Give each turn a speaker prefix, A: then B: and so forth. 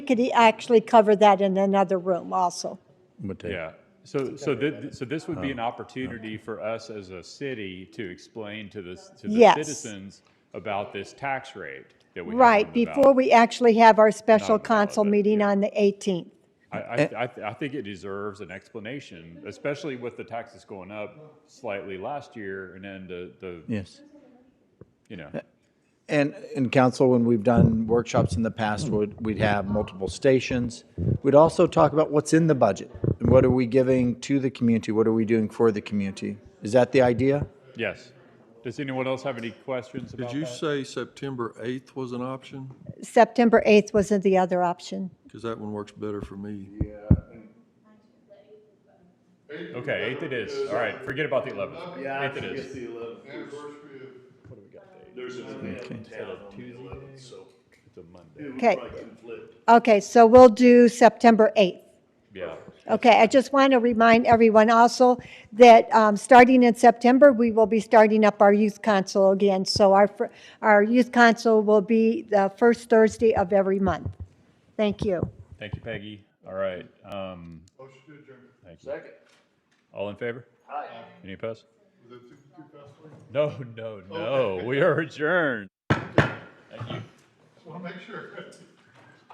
A: could e- actually cover that in another room also.
B: But they-
C: Yeah, so, so this, so this would be an opportunity for us as a city to explain to the, to the
A: Yes.
C: citizens about this tax rate that we have.
A: Right,
C: on the
A: before
C: ballot.
A: we actually have our special
C: Not valid,
A: council
C: yeah.
A: meeting on the 18th.
C: I, I, I, I think it deserves an explanation, especially with the taxes going up slightly last year and then the, the,
B: Yes.
C: you know,
B: And, and council, when we've done workshops in the past, would, we'd have multiple stations. We'd also talk about what's in the budget and what are we giving to the community? What are we doing for the community? Is that the idea?
C: yes. Does anyone else have any questions about
D: Did you
C: that?
D: say September 8th was an option?
A: September 8th wasn't the other option.
D: Because that one works better for me.
C: Okay, eighth it is. All right, forget about the eleventh. Yeah. Eighth it is.
A: Okay. Okay, so we'll do September 8th.
C: Yeah.
A: Okay, I just want to remind everyone also that um, starting in September, we will be starting up our youth council again. So our, fir- our youth council will be the first Thursday of every month. Thank you.
C: Thank you, Peggy. All right. Um, Thank you. Second. All in favor? Aye. Any opposed? No, Oh. no, no. We are adjourned.
E: Want to make sure.